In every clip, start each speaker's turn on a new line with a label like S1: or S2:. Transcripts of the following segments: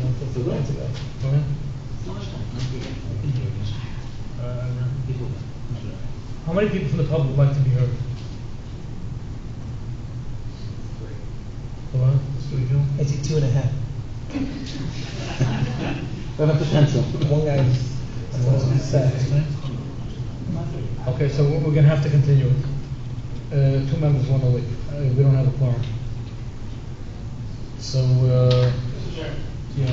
S1: Go ahead. How many people from the public would like to be heard? Go on, let's do it, Jim.
S2: I see two and a half.
S3: Not a potential.
S2: One guy is, and one is sad.
S1: Okay, so we're we're gonna have to continue. Uh, two members wanna leave, uh, we don't have a quorum. So, uh,
S4: Mr. Chairman,
S1: yeah,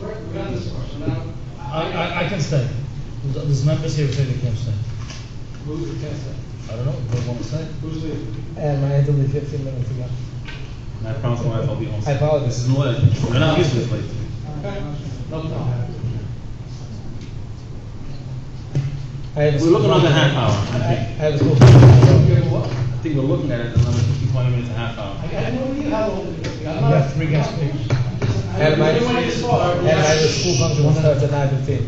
S4: we're, we're on this part, so now,
S1: I, I, I can stay. There's there's members here who say they can't stay.
S4: who's the candidate?
S1: I don't know, they wanna stay.
S4: Who's leaving?
S2: And I had to leave fifteen minutes ago.
S3: And I promise my wife I'll be home.
S2: I apologize.
S3: This is no, we're not used to this late.
S4: Okay. No problem.
S2: I had a
S3: We're looking
S2: school-
S3: at a half hour,
S2: I I
S3: I think.
S2: had a school. function.
S4: Okay, what?
S3: I think we're looking at it another 15, 20 minutes, a half hour.
S4: I got no idea how old it is. I'm
S1: We have
S4: not.
S1: three guest speakers.
S2: Adam, I-
S4: Everyone is far.
S2: And I had a school function, which starts at nine fifteen.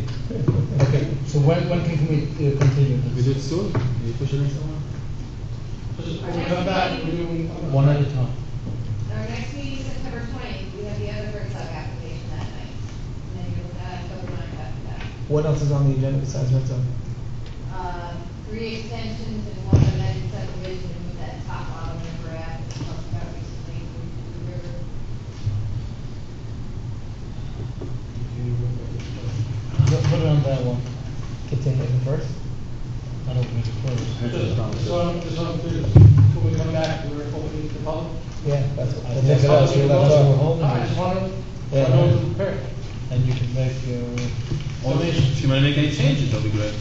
S1: Okay, so when, when can we uh, continue
S3: We
S1: this?
S3: do it soon? Can you push it in somewhere?
S4: When we come back, we're doing.
S1: One at a time.
S5: Our next meeting is September twentieth, we have the other bird club application that night. And then you'll, uh, go line after that.
S2: What else is on the agenda besides red zone?
S5: Uh, three extensions and one amended subdivision with that top model number app that we talked about recently, the river.
S1: Put put it on that one,
S2: Continue the first?
S1: I don't think it's close.
S4: Just on, just on, when we come back, we're opening the public.
S2: Yeah, that's what.
S1: I
S2: that's
S1: think
S2: what else we
S1: that's
S2: left
S1: what
S2: off.
S1: we're holding.
S4: I just wanted, I
S2: Yeah.
S4: know it's prepared.
S1: And you can make your,
S3: Or if you might make any changes, that'll be great.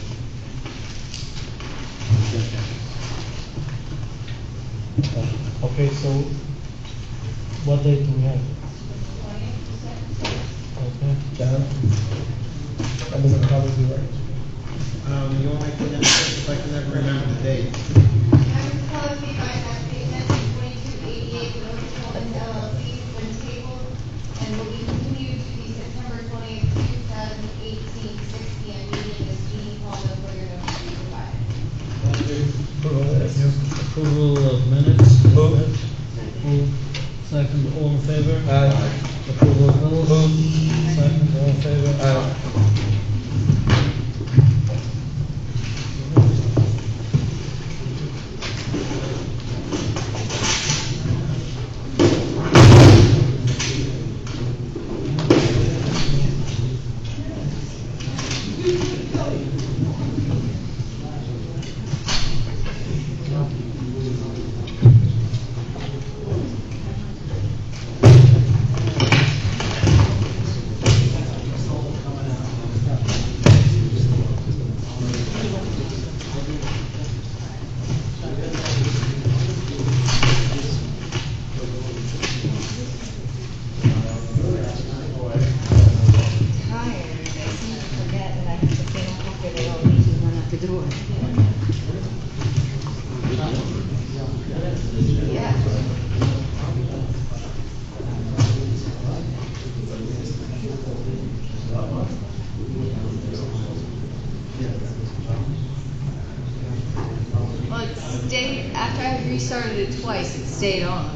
S1: okay, so what date do we have?
S5: Twentieth, you said?
S1: Okay,
S2: John? That doesn't probably be right.
S6: Um, you want me to put that, if I can never remember the date.
S5: Members of public may find application twenty-two eighty-eight, North Fulton LLC, has been tabled and will be continued to the September twentieth, two thousand eighteen, six P M meeting, this meeting called the further notice to be provided.
S7: Approval of minutes. Move. Second, all in favor?
S2: Uh,
S7: Approval of bills. Second, all in favor?
S2: uh,
S8: tired, I seem to forget that I have to get up after they all leave and run out the door. Yeah. Well, it stayed, after I restarted it twice, it stayed on.